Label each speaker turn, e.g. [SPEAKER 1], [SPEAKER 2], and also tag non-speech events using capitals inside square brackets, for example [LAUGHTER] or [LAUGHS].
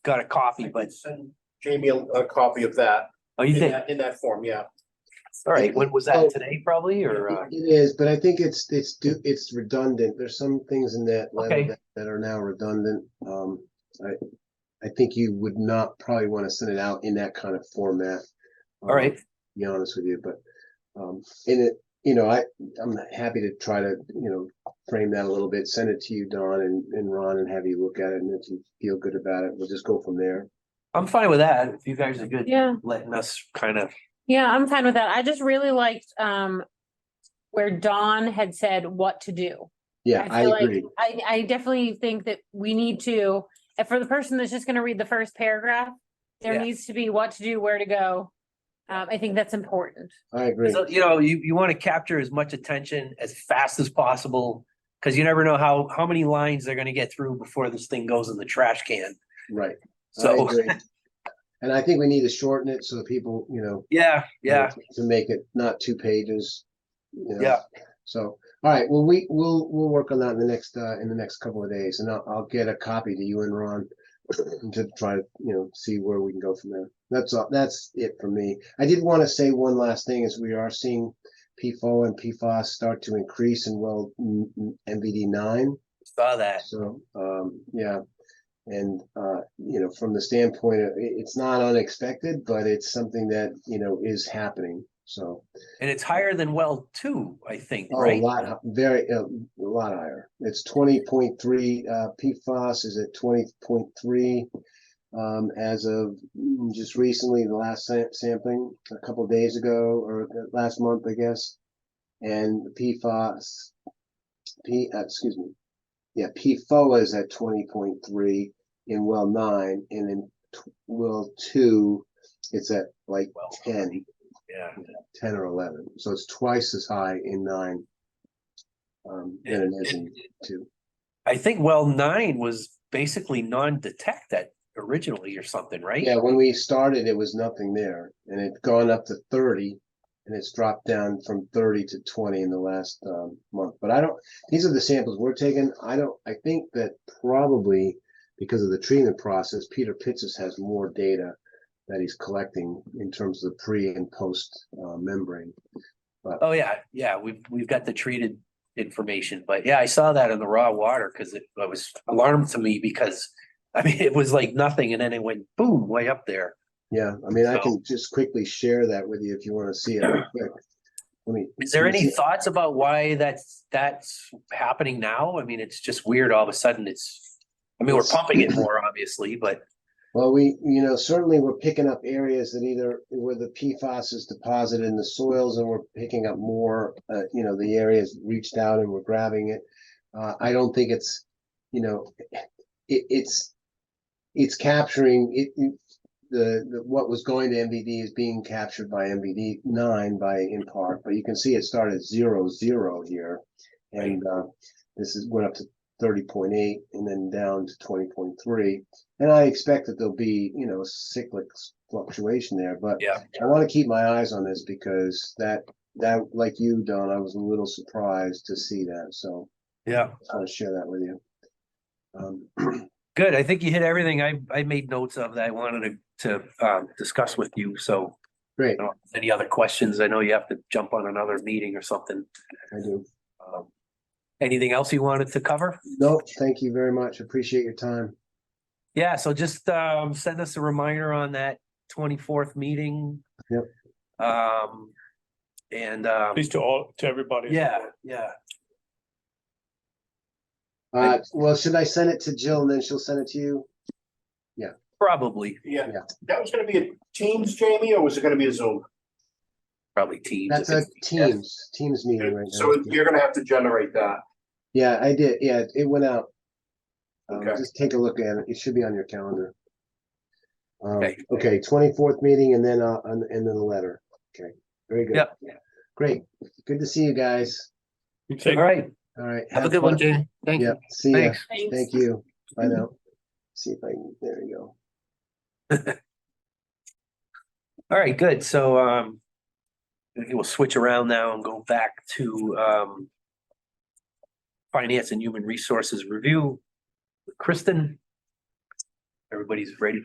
[SPEAKER 1] got a
[SPEAKER 2] I
[SPEAKER 1] copy,
[SPEAKER 2] can
[SPEAKER 1] but,
[SPEAKER 2] Send Jamie a, a copy of that.
[SPEAKER 1] oh, you
[SPEAKER 2] in
[SPEAKER 1] did?
[SPEAKER 2] that- In that form, yeah.
[SPEAKER 1] All right, when was that?
[SPEAKER 3] Oh.
[SPEAKER 1] Today probably, or? uh,
[SPEAKER 3] It is, but I think it's, it's, do it's redundant. There's some things in that
[SPEAKER 1] Okay.
[SPEAKER 3] letter that- that are now redundant. Um, I, I think you would not probably want to send it out in that kind of format.
[SPEAKER 1] All right,
[SPEAKER 3] um, to Be honest with you, but, um, in it, you know, I, I'm happy to try to, you know, frame that a little bit, send it to you, Don and, and Ron, and have you look at it, and if you feel good about it, we'll just go from there.
[SPEAKER 1] I'm fine with that. If you guys are good
[SPEAKER 4] Yeah,
[SPEAKER 1] letting us kind of,
[SPEAKER 4] yeah, I'm fine with that. I just really liked um where Dawn had said what to do.
[SPEAKER 3] Yeah, I
[SPEAKER 4] feel like
[SPEAKER 3] agree.
[SPEAKER 4] I I definitely think that we need to, and for the person that's just gonna read the first paragraph, there
[SPEAKER 1] Yeah.
[SPEAKER 4] needs to be what to do, where to go. Um, I think that's important.
[SPEAKER 3] I agree.
[SPEAKER 1] So, you know, you, you want to capture as much attention as fast as possible. Cause you never know how, how many lines they're gonna get through before this thing goes in the trash can.
[SPEAKER 3] Right. I
[SPEAKER 1] So,
[SPEAKER 3] agree. And I think we need to shorten it so that people, you know,
[SPEAKER 1] yeah, yeah,
[SPEAKER 3] To make it not two pages. you know.
[SPEAKER 1] Yeah.
[SPEAKER 3] So, all right, well, we, we'll, we'll work on that in the next, uh, in the next couple of days and I'll, I'll get a copy to you and Ron. [CLEARS THROAT] To try to, you know, see where we can go from there. That's all, that's it for me. I did want to say one last thing is we are seeing PFO and PFOS start to increase in well, m- m- MVD nine.
[SPEAKER 1] saw that.
[SPEAKER 3] So, um, yeah. And, uh, you know, from the standpoint of, it, it's not unexpected, but it's something that, you know, is happening. So,
[SPEAKER 1] And it's higher than well two, I think,
[SPEAKER 3] oh, a
[SPEAKER 1] right?
[SPEAKER 3] lot, hi- very, uh, a lot higher. It's twenty point three, uh, PFAS is at twenty point three. Um, as of mm, just recently, the last sam- sampling, a couple days ago, or uh, last month, I guess. And PFAS, P, uh, excuse me, yeah, PFOA is at twenty point three in well nine, and in t- well two, it's at like
[SPEAKER 1] Well,
[SPEAKER 3] ten,
[SPEAKER 1] Yeah,
[SPEAKER 3] ten or eleven, so it's twice as high in nine. Um, than it is in two,
[SPEAKER 1] I think well nine was basically non-detect that originally or something, right?
[SPEAKER 3] yeah, when we started, it was nothing there, and it's gone up to thirty. And it's dropped down from thirty to twenty in the last um month, but I don't, these are the samples we're taking, I don't, I think that probably. Because of the treatment process, Peter Pitsis has more data that he's collecting in terms of the pre and post uh membrane.
[SPEAKER 1] Oh, yeah, yeah, we've, we've got the treated information, but yeah, I saw that in the raw water, cause it it was alarmed to me because. [LAUGHS] I mean, it was like nothing and then it went boom, way up there.
[SPEAKER 3] Yeah, I mean, I
[SPEAKER 1] So-
[SPEAKER 3] can just quickly share that with you if you wanna see it. real quick. Let me.
[SPEAKER 1] Is there
[SPEAKER 3] let me
[SPEAKER 1] any
[SPEAKER 3] see.
[SPEAKER 1] thoughts about why that's, that's happening now? I mean, it's just weird. All of a sudden it's, I mean, we're pumping it more obviously, but
[SPEAKER 3] Well, we, you know, certainly we're picking up areas that either where the PFAS is deposited in the soils and we're picking up more, uh, you know, the areas reached out and we're grabbing it. Uh, I don't think it's, you know, it, it's, it's capturing it, it- the, the, what was going to MVD is being captured by MVD nine by in part, but you can see it started at zero, zero here. And, uh, this is, went up to thirty point eight and then down to twenty point three. And I expect that there'll be, you know, cyclic fluctuation there, but
[SPEAKER 1] yeah.
[SPEAKER 3] I want to keep my eyes on this because that, that, like you, Don, I was a little surprised to see that, so
[SPEAKER 1] Yeah.
[SPEAKER 3] I want to share that with you. Um, [CLEARS THROAT]
[SPEAKER 1] Good. I think you hit everything I, I made notes of that I wanted to, to, um, discuss with you. So
[SPEAKER 3] great,
[SPEAKER 1] I don't have any other questions? I know you have to jump on another meeting or something.
[SPEAKER 3] I do.
[SPEAKER 1] Um, Anything else you wanted to cover?
[SPEAKER 3] No, thank you very much. Appreciate your time.
[SPEAKER 1] Yeah, so just um send us a reminder on that twenty-fourth meeting.
[SPEAKER 3] Yep.
[SPEAKER 1] Um, and um,
[SPEAKER 5] Please to all, to everybody.
[SPEAKER 1] yeah, yeah,
[SPEAKER 3] Uh, well, should I send it to Jill and then she'll send it to you?
[SPEAKER 1] probably,
[SPEAKER 2] Yeah.
[SPEAKER 3] Yeah.
[SPEAKER 2] That was gonna be a Teams, Jamie, or was it gonna be a Zoom?
[SPEAKER 1] probably teams.
[SPEAKER 3] That's
[SPEAKER 1] if
[SPEAKER 3] a
[SPEAKER 1] it's-
[SPEAKER 3] Teams, Teams meeting right now.
[SPEAKER 2] So you're gonna have to generate that.
[SPEAKER 3] Yeah, I did, yeah, it went out. Um,
[SPEAKER 2] Okay.
[SPEAKER 3] just take a look at it. It should be on your calendar. Um,
[SPEAKER 1] Okay.
[SPEAKER 3] okay, twenty-fourth meeting and then, uh, and and then the letter. Okay, very good.
[SPEAKER 1] Yep.
[SPEAKER 3] Great. Good to see you guys.
[SPEAKER 5] You take-
[SPEAKER 1] All right,
[SPEAKER 3] All right.
[SPEAKER 1] have a good one,
[SPEAKER 3] fun.
[SPEAKER 1] Jane. Thank
[SPEAKER 3] Yeah,
[SPEAKER 1] you.
[SPEAKER 3] see you.
[SPEAKER 1] Thanks. Mm-hmm.
[SPEAKER 4] Thanks.
[SPEAKER 3] Thank you. Bye now. See if I, can there you go.
[SPEAKER 1] All right, good. So um, we'll switch around now and go back to um finance and human resources review. Kristen. everybody's ready